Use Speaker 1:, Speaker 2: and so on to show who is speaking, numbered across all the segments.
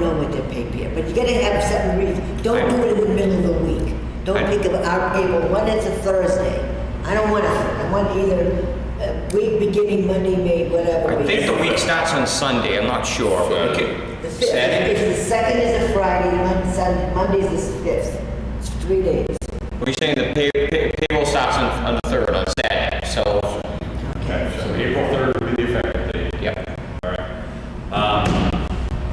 Speaker 1: their pay period, but you gotta have seven reasons. Don't do it in the middle of the week. Don't
Speaker 2: I-
Speaker 1: pick up our April, when it's a Thursday. I don't want to, I want either uh, week beginning Monday, May, whatever.
Speaker 2: I
Speaker 1: week.
Speaker 2: think the week starts on Sunday, I'm not sure, but we
Speaker 1: The
Speaker 2: could,
Speaker 1: fifth,
Speaker 2: Saturday,
Speaker 1: if the second is a Friday, Mon- Sun- Monday's the fifth, it's three days.
Speaker 2: were you saying the pay, pay- payroll starts on, on the third, on Saturday, so,
Speaker 3: Okay, so April 3rd would be the effective date.
Speaker 2: yeah.
Speaker 3: Um,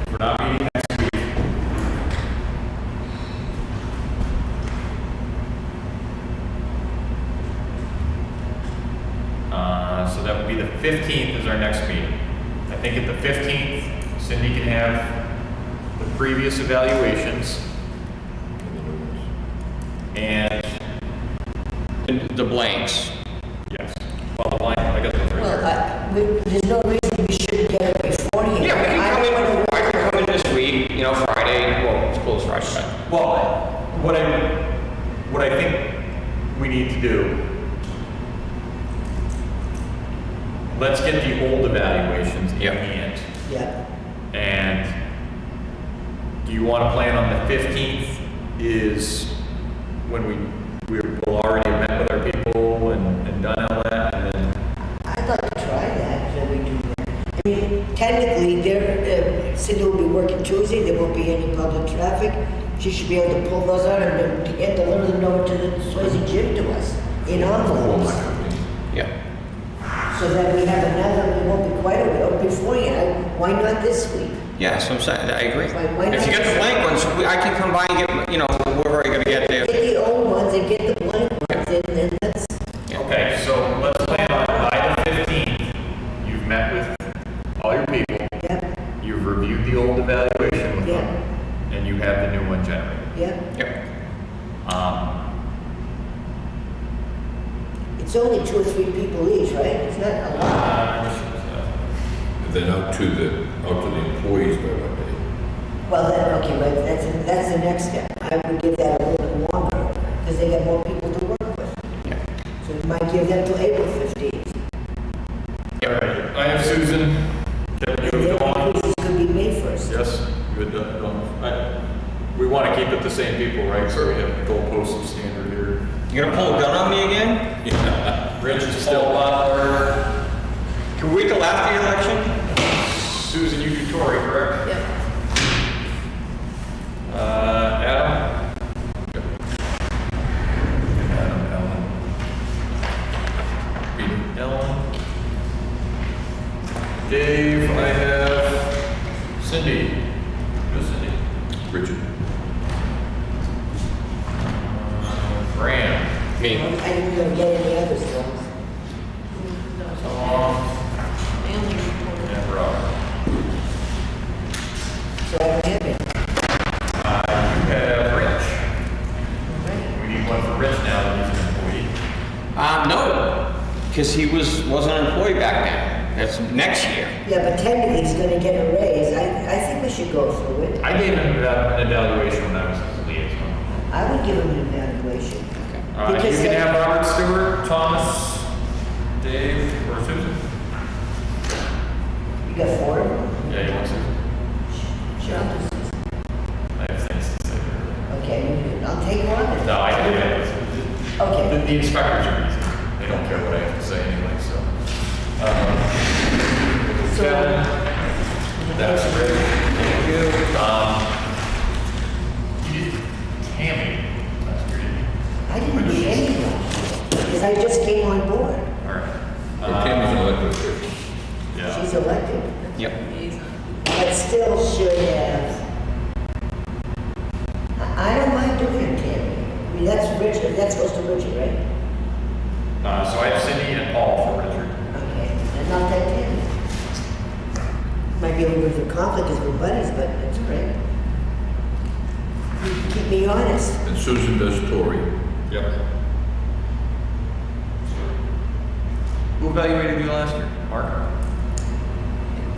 Speaker 3: If we're not meeting next week. Uh, So that would be the 15th is our next meeting. I think at the 15th, Cindy can have the previous evaluations. And,
Speaker 2: And The blanks,
Speaker 3: yes, well, the line, I guess the three.
Speaker 1: Well, I- Uh, we- there's no reason we shouldn't get it beforehand.
Speaker 2: Yeah, we can
Speaker 1: I
Speaker 2: come
Speaker 1: don't wanna
Speaker 2: in,
Speaker 1: work-
Speaker 2: I can come in this week, you know, Friday, well, it's closed Friday, but
Speaker 3: Well, what I, what I think we need to do, let's get the old evaluations in
Speaker 2: Yep.
Speaker 3: hand.
Speaker 1: Yeah.
Speaker 3: And do you want to plan on the 15th is when we, we will already have met with our people and, and done all that and then,
Speaker 1: I'd like to try that, that we do that. I mean, technically, there, uh, Cindy will be working Tuesday, there won't be any public traffic. She should be able to pull those out and then get- deliver them over to the Swayze gym to us in envelopes.
Speaker 2: yeah.
Speaker 1: So that we have another, it won't be quite Oh, a week beforehand. Why not this week?
Speaker 2: Yeah, so I'm saying, I agree.
Speaker 1: Why- why
Speaker 2: If you
Speaker 1: not?
Speaker 2: get the blank ones, we- I can come by and get, you know, whoever I gotta get there.
Speaker 1: Get the old ones and get the blank ones and then that's,
Speaker 3: okay, so let's plan on by the 15th, you've met with all your people,
Speaker 1: yep,
Speaker 3: you've reviewed the old evaluation with
Speaker 1: Yeah.
Speaker 3: them, and you have the new one generated.
Speaker 1: yep.
Speaker 2: Yep,
Speaker 3: Um,
Speaker 1: It's only two or three people each, right? It's not a lot.
Speaker 4: Uh, Then out to the, out to the employees by what day?
Speaker 1: Well, then, okay, but that's, that's the next step. I would give that a little bit longer, because they got more people to work with. So we might give them till April fifteenth.
Speaker 3: all right, I have Susan. Kevin, you
Speaker 1: And
Speaker 3: have
Speaker 1: then
Speaker 3: Dawn.
Speaker 1: increases could be made first.
Speaker 3: Yes, you had done- Dawn. I- We want to keep it the same people, right? So we have goalposts of standard here.
Speaker 2: you gonna pull a gun on me again?
Speaker 3: Rich is still a lot harder.
Speaker 2: Can we go after the election?
Speaker 3: Susan, you do Tory, correct? Yep. Uh, Adam? Adam, Ellen. Beating Ellen. Dave, I have Cindy. Who's Cindy?
Speaker 4: Richard?
Speaker 3: Uh, Fran.
Speaker 1: I
Speaker 2: Me.
Speaker 1: didn't go get any others, though.
Speaker 3: Tom. And Rob.
Speaker 1: So I don't have it.
Speaker 3: Uh, you have Rich. We need one for Rich now that he's an employee.
Speaker 2: Uh, no, because he was, wasn't an employee back then. That's next year.
Speaker 1: Yeah, but technically, he's gonna get a raise. I, I think we should go through it.
Speaker 3: I gave him that- an evaluation when I was his liaison.
Speaker 1: I would give him an evaluation.
Speaker 3: All right, you
Speaker 1: Because
Speaker 3: can
Speaker 1: they-
Speaker 3: have Robert Stewart, Thomas, Dave, or Susan.
Speaker 1: You got four?
Speaker 3: Yeah, you want Susan?
Speaker 1: Sure.
Speaker 3: I have things to say.
Speaker 1: Okay, you do. I'll take one.
Speaker 3: No, I do have, the,
Speaker 1: Okay.
Speaker 3: the inspectors are easy. They don't care what I have to say anyway, so. Um,
Speaker 1: So-
Speaker 3: Kevin, that's great. Thank you. Um, you did Tammy, that's great.
Speaker 1: I didn't do anyone, because I just came on board.
Speaker 3: All right. Uh,
Speaker 4: Or Kim is an elected official.
Speaker 3: Yeah.
Speaker 1: She's elected.
Speaker 2: Yep.
Speaker 1: but still should have. I I don't mind doing it, Tammy. I mean, that's Richard, that's goes to Richard, right?
Speaker 3: Uh, so I have Cindy and Paul for Richard.
Speaker 1: Okay, and not that Tammy. Might be a little bit of a conflict because we're buddies, but it's great. You Keep me honest.
Speaker 4: And Susan does Tory.
Speaker 3: Yep. Who evaluated you last year? Mark?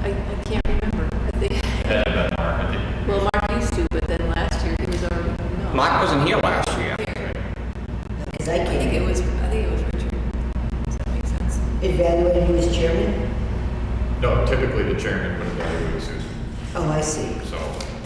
Speaker 5: I, I can't remember. I think,
Speaker 3: Had it been Mark, I think.
Speaker 5: well, Mark used to, but then last year he was already, no.
Speaker 2: Mark wasn't here last year.
Speaker 1: Because I
Speaker 5: I think it
Speaker 1: can
Speaker 5: was, I think it was Richard. Does that make sense?
Speaker 1: evaluate you as chairman.
Speaker 3: No, typically the chairman would evaluate Susan.
Speaker 1: Oh, I see.